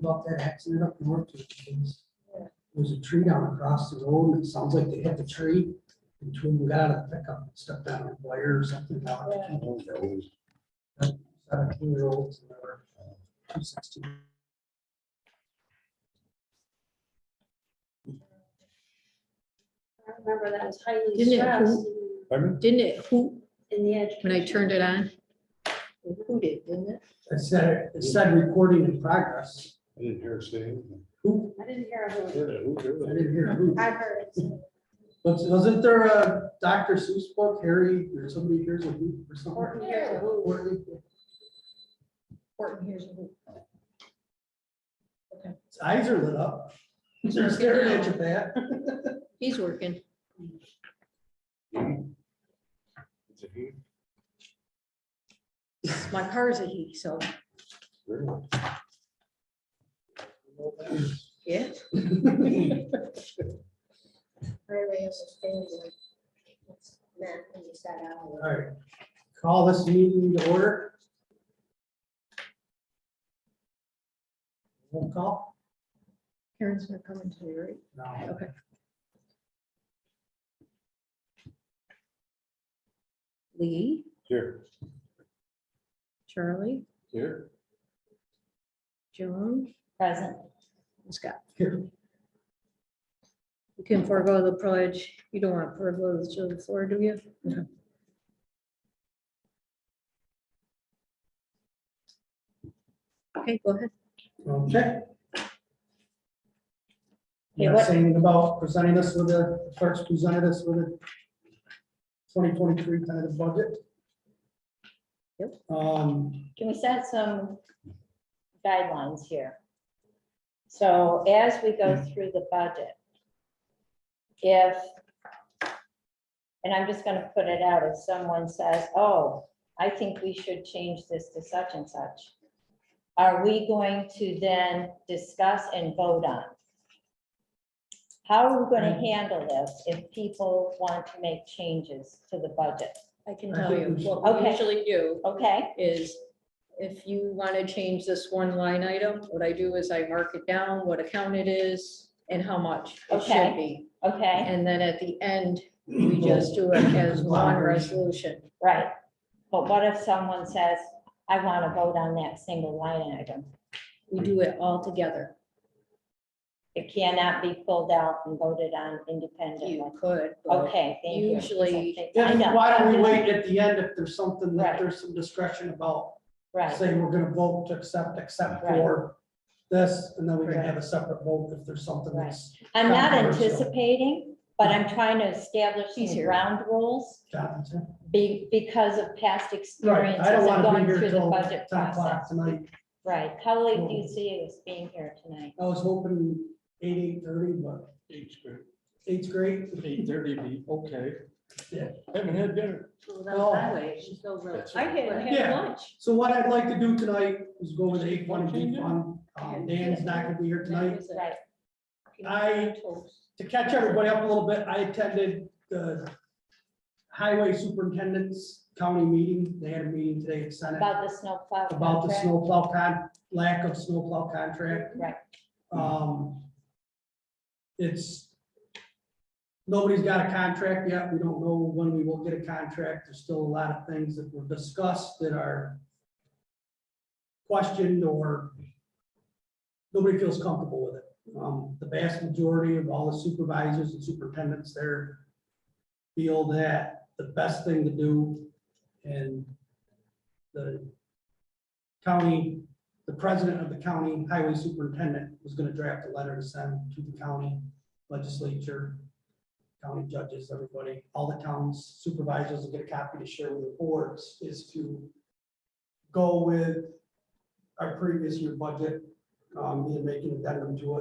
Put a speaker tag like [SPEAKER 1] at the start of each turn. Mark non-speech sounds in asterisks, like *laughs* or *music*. [SPEAKER 1] About that accident up north, there was- there was a tree down across the road, and it sounds like they hit the tree. And two of them got out of the pickup, and stepped on a wire or something.
[SPEAKER 2] Yeah.
[SPEAKER 1] Seventeen year olds, and they were two sixteen.
[SPEAKER 2] I remember that was highly
[SPEAKER 3] Didn't it
[SPEAKER 2] stressed
[SPEAKER 4] Pardon?
[SPEAKER 3] Didn't it hoot
[SPEAKER 2] in the edge.
[SPEAKER 3] when I turned it on? It hooted, didn't it?
[SPEAKER 1] It said, it said recording in progress.
[SPEAKER 4] I didn't hear it say. anything.
[SPEAKER 1] Who,
[SPEAKER 2] I didn't hear who.
[SPEAKER 4] Heard it, who
[SPEAKER 1] I
[SPEAKER 4] heard it?
[SPEAKER 1] didn't hear who.
[SPEAKER 2] I heard it. so-
[SPEAKER 1] Was- Wasn't there a Dr. Seuss book, Harry, or somebody hears a who or
[SPEAKER 2] Horton
[SPEAKER 1] something?
[SPEAKER 2] hears a who.
[SPEAKER 1] Horton.
[SPEAKER 3] Horton hears a hoot.
[SPEAKER 1] His eyes are lit up. They're staring at you, Pat.
[SPEAKER 2] *laughs*
[SPEAKER 1] *laughs*
[SPEAKER 3] He's working.
[SPEAKER 4] It's a he,
[SPEAKER 3] My car's a he, so,
[SPEAKER 4] really.
[SPEAKER 3] yeah.
[SPEAKER 1] All right, call this meeting to order. Roll call?
[SPEAKER 3] Karen's not coming today, right?
[SPEAKER 1] No.
[SPEAKER 3] Okay. Lee,
[SPEAKER 4] Here,
[SPEAKER 3] Charlie,
[SPEAKER 4] here.
[SPEAKER 3] Joan,
[SPEAKER 2] Present.
[SPEAKER 3] and Scott.
[SPEAKER 1] Here.
[SPEAKER 3] You can forego the pledge. You don't want to forego the show floor, do you? Okay, go ahead.
[SPEAKER 1] Okay.
[SPEAKER 3] Yeah,
[SPEAKER 1] You're
[SPEAKER 3] what-
[SPEAKER 1] saying about presenting us with the, first presented us with a twenty twenty-three tentative budget?
[SPEAKER 3] Yep.
[SPEAKER 1] Um,
[SPEAKER 5] Can we set some guidelines here? So as we go through the budget, if, and I'm just gonna put it out, if someone says, oh, I think we should change this to such and such, are we going to then discuss and vote on? How are we gonna handle this if people want to make changes to the budget?
[SPEAKER 3] I can
[SPEAKER 1] I
[SPEAKER 3] tell
[SPEAKER 1] think
[SPEAKER 3] you,
[SPEAKER 1] we should-
[SPEAKER 3] what we
[SPEAKER 5] Okay.
[SPEAKER 3] usually do
[SPEAKER 5] Okay,
[SPEAKER 3] is if you want to change this one line item, what I do is I mark it down, what account it is and how much it should
[SPEAKER 5] Okay.
[SPEAKER 3] be.
[SPEAKER 5] okay,
[SPEAKER 3] And then at the end, we just do it as one resolution.
[SPEAKER 5] right. But what if someone says, I want to vote on that single line item?
[SPEAKER 3] We do it all together.
[SPEAKER 5] It cannot be pulled out and voted on independently.
[SPEAKER 3] You could. but-
[SPEAKER 5] Okay, thank you.
[SPEAKER 3] Usually-
[SPEAKER 5] Okay,
[SPEAKER 1] yeah,
[SPEAKER 5] I know,
[SPEAKER 1] why don't
[SPEAKER 5] I'm
[SPEAKER 1] we
[SPEAKER 5] just-
[SPEAKER 1] wait at the end if there's something that
[SPEAKER 5] Right.
[SPEAKER 1] there's some discretion about?
[SPEAKER 5] Right,
[SPEAKER 1] Say we're gonna vote to accept, except
[SPEAKER 5] Right.
[SPEAKER 1] for this, and then we can
[SPEAKER 3] Right.
[SPEAKER 1] have a separate vote if there's something that's
[SPEAKER 5] I'm not
[SPEAKER 1] Controversial.
[SPEAKER 5] anticipating, but I'm trying to establish
[SPEAKER 3] He's
[SPEAKER 5] these
[SPEAKER 3] here.
[SPEAKER 5] ground rules
[SPEAKER 1] Jonathan.
[SPEAKER 5] be, because of past
[SPEAKER 1] Right,
[SPEAKER 5] experiences
[SPEAKER 1] I don't
[SPEAKER 5] of
[SPEAKER 1] wanna
[SPEAKER 5] going
[SPEAKER 1] be here
[SPEAKER 5] through the
[SPEAKER 1] till
[SPEAKER 5] budget
[SPEAKER 1] ten o'clock Mm.
[SPEAKER 5] process.
[SPEAKER 1] tonight.
[SPEAKER 5] Right, how late do you see us being here tonight?
[SPEAKER 1] I was hoping eight, eight thirty, but
[SPEAKER 4] Eight's good.
[SPEAKER 1] eight's great.
[SPEAKER 4] Eight thirty, be okay.
[SPEAKER 1] Yeah.
[SPEAKER 4] Haven't had dinner.
[SPEAKER 1] No.
[SPEAKER 3] I hadn't
[SPEAKER 1] Oh,
[SPEAKER 3] had
[SPEAKER 1] Yeah.
[SPEAKER 3] lunch.
[SPEAKER 1] So what I'd like to do tonight is go with eight one B one. Um, Dan's not gonna be here tonight.
[SPEAKER 5] Right,
[SPEAKER 1] I, to catch everybody up a little bit, I attended the highway superintendent's county meeting. They had a meeting today at Senate.
[SPEAKER 5] about the snowplow.
[SPEAKER 1] about the
[SPEAKER 5] contract.
[SPEAKER 1] snowplow con, lack of snowplow contract.
[SPEAKER 5] Right.
[SPEAKER 1] Um, it's, nobody's got a contract yet. We don't know when we will get a contract. There's still a lot of things that were discussed that are questioned or nobody feels comfortable with it. Um, the vast majority of all the supervisors and superintendents there feel that the best thing to do and the county, the president of the county highway superintendent was gonna draft a letter to send to the county legislature, county judges, everybody, all the towns supervisors will get a copy to share with the boards, is to go with our previous year budget, um, either make an addendum to it